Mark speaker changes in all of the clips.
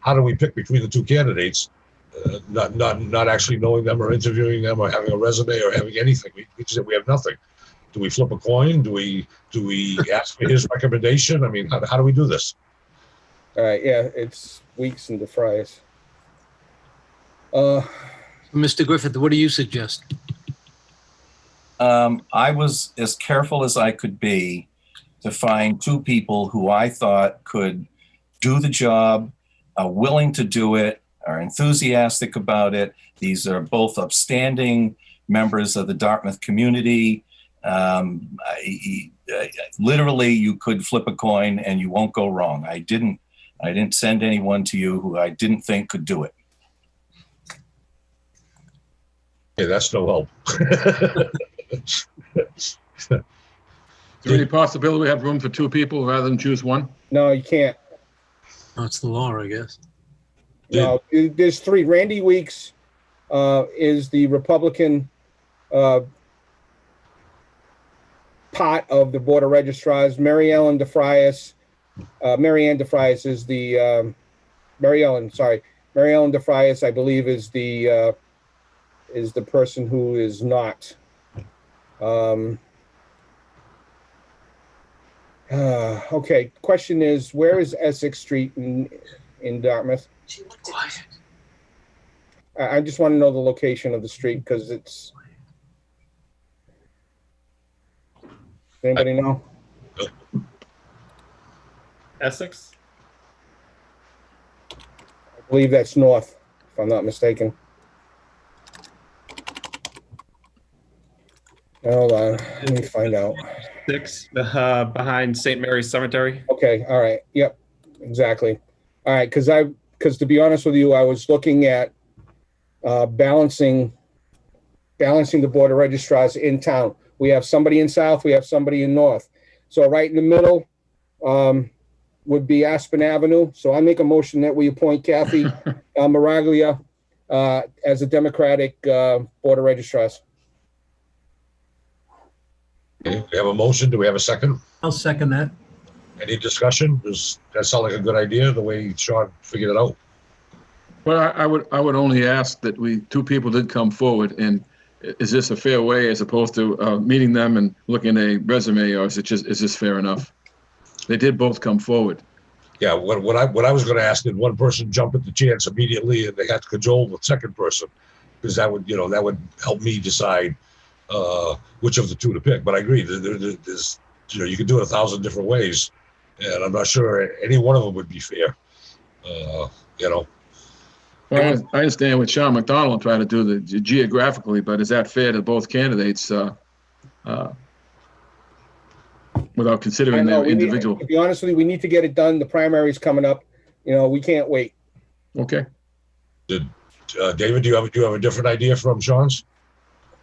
Speaker 1: how do we pick between the two candidates? Uh, not, not, not actually knowing them or interviewing them or having a resume or having anything. We, we said we have nothing. Do we flip a coin? Do we, do we ask for his recommendation? I mean, how, how do we do this?
Speaker 2: All right, yeah, it's Weeks and DeFrias. Uh,
Speaker 3: Mr. Griffith, what do you suggest?
Speaker 4: Um, I was as careful as I could be to find two people who I thought could do the job, are willing to do it, are enthusiastic about it. These are both upstanding members of the Dartmouth community. Um, I, I- literally, you could flip a coin and you won't go wrong. I didn't. I didn't send anyone to you who I didn't think could do it.
Speaker 1: Hey, that's no help.
Speaker 5: Is there any possibility we have room for two people rather than choose one?
Speaker 2: no, you can't.
Speaker 3: That's the law, I guess.
Speaker 2: No, Uh, there's three. Randy Weeks uh, is the Republican uh, part of the Board of Registrars. Mary Ellen DeFrias, uh, Mary Ann DeFrias is the, um, Mary Ellen, sorry, Mary Ellen DeFrias, I believe, is the, uh, is the person who is not. Um, uh, Okay, question is, where is Essex Street in, in Dartmouth? I, I just want to know the location of the street because it's. Anybody know?
Speaker 6: Essex?
Speaker 2: I believe that's north, if I'm not mistaken. Hold on, uh, let me find out.
Speaker 6: Six, uh, behind St. Mary's Cemetery.
Speaker 2: Okay, all right, yep, exactly. All right, because I, because to be honest with you, I was looking at uh, balancing, balancing the Board of registrars in town. We have somebody in South, we have somebody in North. So right in the middle um, would be Aspen Avenue. So I make a motion that we appoint Kathy uh, Maraglia uh, as a Democratic uh, Board of registrars.
Speaker 1: Okay, We have a motion. Do we have a second?
Speaker 3: I'll second that.
Speaker 1: Any discussion? Does that sound like a good idea, the way Sean figured it out?
Speaker 5: Well, I, I would, I would only ask that we, two people did come forward and i- is this a fair way as opposed to, uh, meeting them and looking at a resume or is it just, is this fair enough? They did both come forward.
Speaker 1: Yeah, what, what I, what I was gonna ask, did one person jump at the chance immediately and they had to cajole the second person? Because that would, you know, that would help me decide, uh, which of the two to pick, but I agree, there, there, there- there's, you know, you can do it a thousand different ways. And I'm not sure any one of them would be fair, uh, you know,
Speaker 5: Well, I I understand what Sean McDonald tried to do the ge- geographically, but is that fair to both candidates, uh, uh, without
Speaker 2: I
Speaker 5: considering
Speaker 2: know,
Speaker 5: their
Speaker 2: we need-
Speaker 5: individual?
Speaker 2: To be honest with you, we need to get it done. The primary's coming up. You know, we can't wait.
Speaker 5: Okay,
Speaker 1: uh, David, do you have, do you have a different idea from Sean's?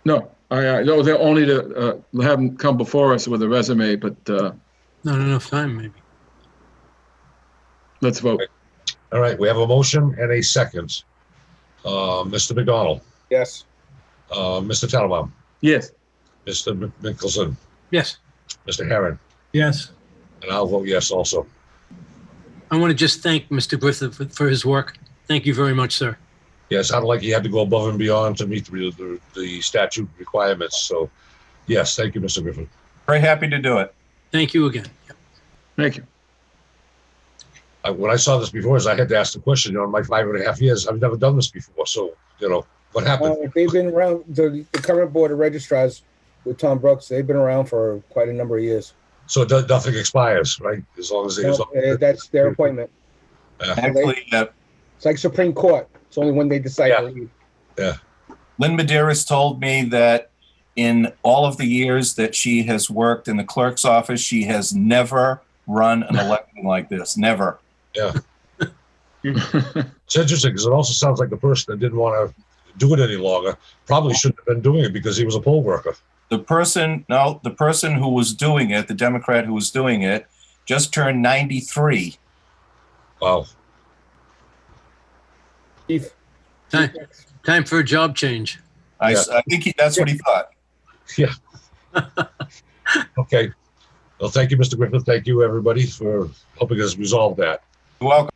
Speaker 5: no, I, I, no, they're only to, uh, have them come before us with a resume, but, uh,
Speaker 3: Not enough time, maybe.
Speaker 5: let's vote.
Speaker 1: All right, we have a motion and a second. Uh, Mr. McDonald,
Speaker 2: Yes.
Speaker 1: uh, Mr. Tattelbaum,
Speaker 5: Yes.
Speaker 1: Mr. Mc- Mickelson,
Speaker 3: Yes.
Speaker 1: Mr. Herron,
Speaker 3: Yes.
Speaker 1: and I'll vote yes also.
Speaker 3: I want to just thank Mr. Griffith for- for his work. Thank you very much, sir.
Speaker 1: Yeah, it sounded like he had to go above and beyond to meet the, the, the statute requirements. So, yes, thank you, Mr. Griffin.
Speaker 4: Very happy to do it.
Speaker 3: Thank you again.
Speaker 5: Thank you.
Speaker 1: I, when I saw this before, is I had to ask the question. You know, in my five and a half years, I've never done this before. So, you know, what happened?
Speaker 2: Well, Uh, they've been around, the, the current board of registrars with Tom Brooks, they've been around for quite a number of years.
Speaker 1: So it does, nothing expires, right? As long as they. as
Speaker 2: No,
Speaker 1: long-
Speaker 2: eh, That's their appointment.
Speaker 4: Actually, uh,
Speaker 2: It's like Supreme Court. It's only when they decide
Speaker 1: Yeah.
Speaker 2: to leave.
Speaker 4: Lynn Medeiros told me that in all of the years that she has worked in the clerk's office, she has never run an election like this. Never.
Speaker 1: It's interesting because it also sounds like the person that didn't want to do it any longer probably shouldn't have been doing it because he was a poll worker.
Speaker 4: The person, no, the person who was doing it, the Democrat who was doing it, just turned 93.
Speaker 1: Wow.
Speaker 2: Chief,
Speaker 3: Time, time for a job change.
Speaker 4: I, s- I think he, that's what he thought.
Speaker 1: Okay. Well, thank you, Mr. Griffin. Thank you, everybody, for helping us resolve that.
Speaker 4: You're welcome.